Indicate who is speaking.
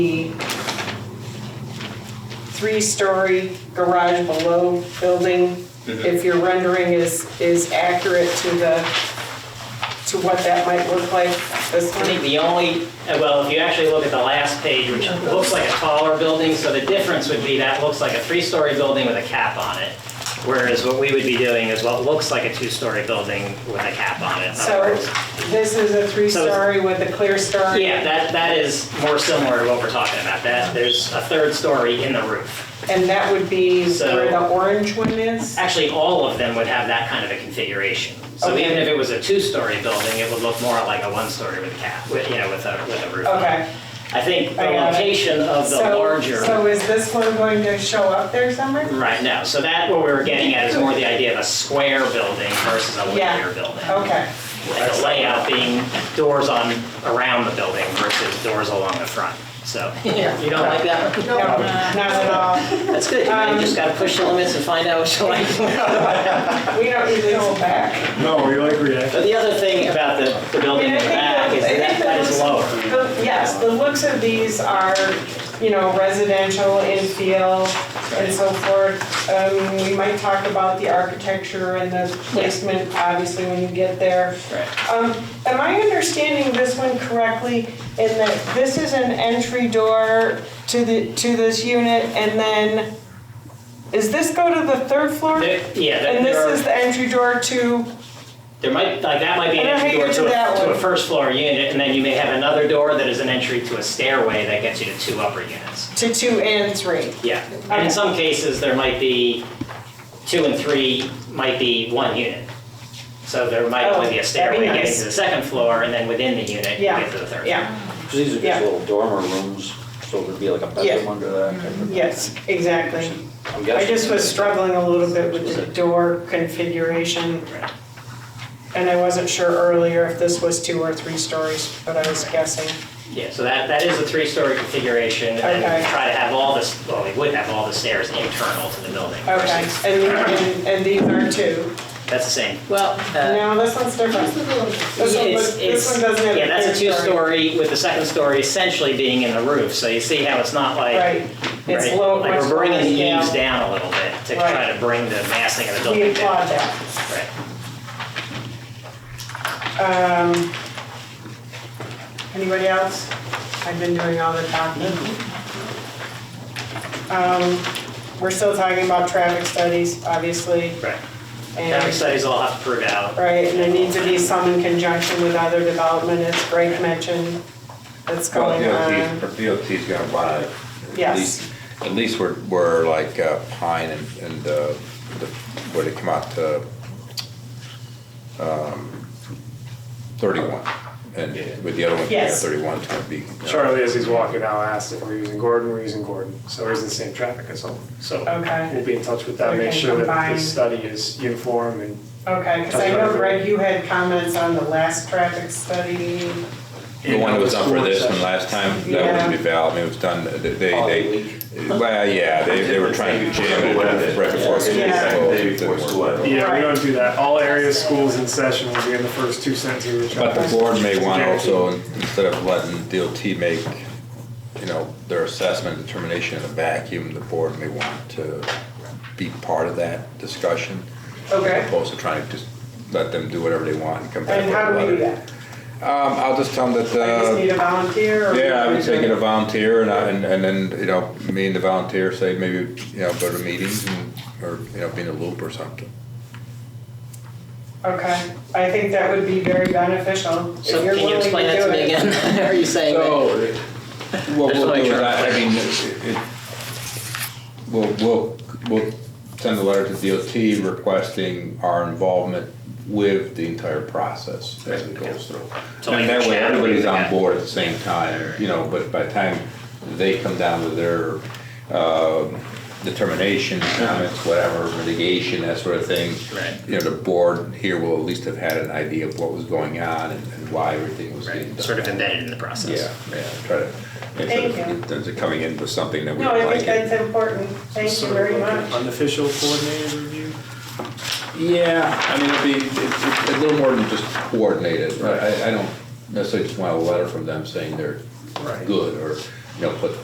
Speaker 1: the three-story garage below building, if your rendering is, is accurate to the, to what that might look like, this
Speaker 2: I think
Speaker 1: one?
Speaker 2: the only, uh, well, if you actually look at the last page, which looks like a taller building, so the difference would be that looks like a three-story building with a cap on it. Whereas what we would be doing is what looks like a two-story building with a cap on it.
Speaker 1: So this is a three-story with a clear story?
Speaker 2: Yeah, that, that is more similar to what we're talking about. That, there's a third story in the roof.
Speaker 1: And that would be
Speaker 2: So-
Speaker 1: where the orange one is?
Speaker 2: Actually, all of them would have that kind of a configuration. So
Speaker 1: Okay.
Speaker 2: even if it was a two-story building, it would look more like a one-story with a cap, with, you know, with a, with a roof on it.
Speaker 1: Okay.
Speaker 2: I think the
Speaker 1: I got it.
Speaker 2: location of the
Speaker 1: So-
Speaker 2: larger.
Speaker 1: So is this one going to show up there somewhere?
Speaker 2: Right, no, so that, what we were getting at is more the idea of a square building versus a linear
Speaker 1: Yeah.
Speaker 2: building.
Speaker 1: Okay,
Speaker 2: And the layout being doors on, around the building versus doors along the front, so. You don't like that?
Speaker 1: no, not at all.
Speaker 2: That's good, you
Speaker 1: Um,
Speaker 2: know, you just gotta push the limits and find out what you like.
Speaker 1: We don't need to go back.
Speaker 3: No, we like react.
Speaker 2: But the other thing about the, the building in the back is that that is lower.
Speaker 1: The- Um, Yes, the looks of these are, you know, residential in feel and so forth. Um, we might talk about the architecture and the placement, obviously, when you get there.
Speaker 2: Right.
Speaker 1: Um, am I understanding this one correctly in that this is an entry door to the, to this unit and then, is this go to the third floor?
Speaker 2: There- Yeah, there-
Speaker 1: And this
Speaker 2: there
Speaker 1: is
Speaker 2: are,
Speaker 1: the entry door to,
Speaker 2: there might, like, that might be an
Speaker 1: I don't
Speaker 2: entry
Speaker 1: think
Speaker 2: door
Speaker 1: it's
Speaker 2: to
Speaker 1: that
Speaker 2: a, to a
Speaker 1: one.
Speaker 2: first floor unit, and then you may have another door that is an entry to a stairway that gets you to two upper units.
Speaker 1: to two and three?
Speaker 2: Yeah, and
Speaker 1: Okay.
Speaker 2: in some cases, there might be, two and three might be one unit. So there might
Speaker 1: Oh,
Speaker 2: only be a stairway
Speaker 1: that'd be
Speaker 2: getting
Speaker 1: nice.
Speaker 2: to the second floor, and then within the unit, you
Speaker 1: Yeah.
Speaker 2: get to the third.
Speaker 1: Yeah.
Speaker 4: These are
Speaker 1: Yeah.
Speaker 4: just little dormer rooms, so there'd be like a bedroom
Speaker 1: Yeah.
Speaker 4: under that. type of-
Speaker 1: Yes, exactly.
Speaker 4: I'm
Speaker 1: I
Speaker 4: guessing.
Speaker 1: just was struggling a little bit with the door configuration,
Speaker 2: floor.
Speaker 1: and I wasn't sure earlier if this was two or three stories, but I was guessing.
Speaker 2: Yeah, so that, that is a three-story configuration, and
Speaker 1: Okay.
Speaker 2: we try to have all this, well, we would have all the stairs internal to the building.
Speaker 1: Okay,
Speaker 2: versus-
Speaker 1: and, and, and these are two.
Speaker 2: That's the same.
Speaker 5: Well, uh,
Speaker 1: No, this one's different. This one,
Speaker 2: It's-
Speaker 1: look- this
Speaker 2: it's-
Speaker 1: one doesn't have a
Speaker 2: Yeah, that's a
Speaker 1: third story.
Speaker 2: two-story, with the second story essentially being in the roof, so you see how it's not like.
Speaker 1: Right, it's
Speaker 2: Right.
Speaker 1: low.
Speaker 2: Like
Speaker 1: much
Speaker 2: we're bringing
Speaker 1: lower
Speaker 2: the
Speaker 1: scale.
Speaker 2: eaves down a little bit to
Speaker 1: Right.
Speaker 2: try to bring the massing of the
Speaker 1: We
Speaker 2: building
Speaker 1: applaud
Speaker 2: down.
Speaker 1: that.
Speaker 2: Right.
Speaker 1: Um, Anybody else? I've been doing all the talking. Um, We're still talking about traffic studies, obviously,
Speaker 2: Right. Traffic
Speaker 1: and,
Speaker 2: studies all have to prove out.
Speaker 1: right, and there need to be some in conjunction with other development, as Greg mentioned, that's
Speaker 6: Well,
Speaker 1: going
Speaker 6: DOT,
Speaker 1: on.
Speaker 6: but DOT's gonna want to.
Speaker 1: Yes.
Speaker 6: At least we're, we're like uh, Pine and, and uh, the, where they come out to, um, thirty-one. And with the other one, yeah,
Speaker 1: Yes.
Speaker 6: thirty-one's gonna be. you know,
Speaker 3: Charlie, as he's walking out, asked if we're using Gordon, we're using Gordon, so we're using the same traffic consultant. So
Speaker 1: Okay,
Speaker 3: we'll be in touch with that, make
Speaker 1: Okay,
Speaker 3: sure that
Speaker 1: combine.
Speaker 3: this study is uniform and.
Speaker 1: okay, because I know, Greg, you had comments on the last traffic study.
Speaker 6: The one that was done for this one last time, that wouldn't be
Speaker 1: Yeah.
Speaker 6: valid, I mean, it was done, they,
Speaker 4: Oh,
Speaker 6: they,
Speaker 4: we-
Speaker 6: well, yeah, they, they were trying to jam it right before. school.
Speaker 1: Yeah.
Speaker 6: so it didn't work.
Speaker 3: Yeah,
Speaker 1: Right.
Speaker 3: we don't do that. All area schools in session will be in the first two sentences of the
Speaker 6: But
Speaker 3: traffic.
Speaker 6: the board may want
Speaker 3: Guaranteed.
Speaker 6: also, instead of letting DOT make, you know, their assessment determination in a vacuum, the board may want to be part of that discussion. As
Speaker 1: Okay,
Speaker 6: opposed to trying to just let them do whatever they want and come back
Speaker 1: and
Speaker 6: with a
Speaker 1: how do we do
Speaker 6: letter.
Speaker 1: that?
Speaker 6: Um, I'll just tell them
Speaker 1: I just need
Speaker 6: that, uh,
Speaker 1: a volunteer or?
Speaker 6: yeah, I would say get a volunteer and I, and and then, you know, me and the volunteer say maybe, you know, go to meetings and, or, you know, be in a loop or something.
Speaker 1: Okay, I think that would be very beneficial. if
Speaker 5: so
Speaker 1: you're
Speaker 5: can you
Speaker 1: willing
Speaker 5: explain that to
Speaker 1: do
Speaker 5: me
Speaker 1: it.
Speaker 5: again? Are you saying that?
Speaker 6: So, what
Speaker 5: Just
Speaker 6: we'll do
Speaker 5: make
Speaker 6: is,
Speaker 5: sure.
Speaker 6: I I mean, it- it- we'll, we'll, we'll send a letter to DOT requesting our involvement with the entire process as it goes through.
Speaker 2: So
Speaker 6: And
Speaker 2: like
Speaker 6: that
Speaker 2: chat
Speaker 6: way,
Speaker 2: with
Speaker 6: everybody's
Speaker 2: the
Speaker 6: on
Speaker 2: guy.
Speaker 6: board at the same time, you know, but by the time they come down with their, um, determination, comments, whatever, mitigation, that sort of thing.
Speaker 2: Right.
Speaker 6: You know, the board here will at least have had an idea of what was going on and and why everything was getting done.
Speaker 2: Right, sort of embedded in the process.
Speaker 6: Yeah, yeah, try to,
Speaker 1: Thank
Speaker 6: instead
Speaker 1: you.
Speaker 6: of, instead of coming in with something that we
Speaker 1: No,
Speaker 6: don't
Speaker 1: I think
Speaker 6: like. it.
Speaker 1: that's important. Thank you
Speaker 3: Sort of
Speaker 1: very
Speaker 3: like an
Speaker 1: much.
Speaker 3: Unofficial coordinated review?
Speaker 6: Yeah, I mean, it'd be, it's it's a little more than just coordinated, right? I, I don't necessarily just want a letter from them saying they're
Speaker 3: Right.
Speaker 6: good, or you know, put